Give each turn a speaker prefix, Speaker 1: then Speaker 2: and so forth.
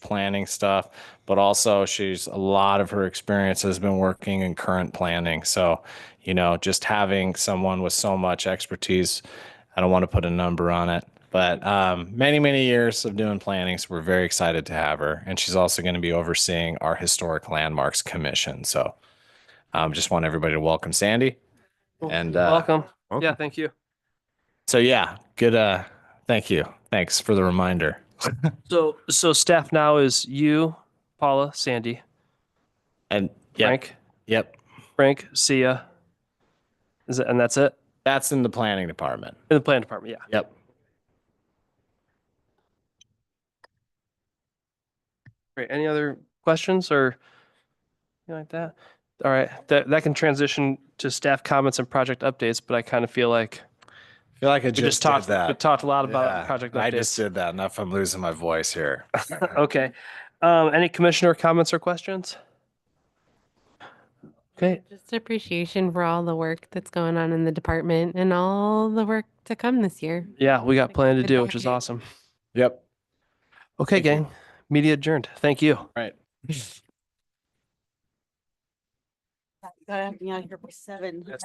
Speaker 1: planning stuff, but also she's a lot of her experience has been working in current planning. So, you know, just having someone with so much expertise, I don't want to put a number on it, but um, many, many years of doing planning. So we're very excited to have her. And she's also going to be overseeing our Historic Landmarks Commission. So um, just want everybody to welcome Sandy. And uh,
Speaker 2: Welcome.
Speaker 3: welcome.
Speaker 2: Yeah, thank you.
Speaker 1: so, yeah, good. Uh, thank you. Thanks for the reminder.
Speaker 2: So, so staff now is you, Paula, Sandy,
Speaker 1: And yep,
Speaker 2: Frank,
Speaker 1: yep,
Speaker 2: Frank, Sia. Is it, and that's it
Speaker 1: that's in the planning department.
Speaker 2: in the plan department. Yeah.
Speaker 1: Yep.
Speaker 2: Great. Any other questions or anything like that? All right. That, that can transition to staff comments and project updates, but I kind of feel like
Speaker 1: I feel like I
Speaker 2: we
Speaker 1: just,
Speaker 2: just, talked,
Speaker 1: did that.
Speaker 2: we talked a lot about
Speaker 1: Yeah,
Speaker 2: project updates.
Speaker 1: I just did that. Enough. I'm losing my voice here.
Speaker 2: Okay. Um, any commissioner comments or questions? Okay.
Speaker 4: Just appreciation for all the work that's going on in the department and all the work to come this year.
Speaker 2: Yeah, we got plan to
Speaker 4: Good
Speaker 2: do, which is
Speaker 4: package.
Speaker 2: awesome.
Speaker 1: yep.
Speaker 2: Okay,
Speaker 1: Thank you.
Speaker 2: gang. Media adjourned. Thank you.
Speaker 1: Right.
Speaker 5: Gotta have me out here by seven.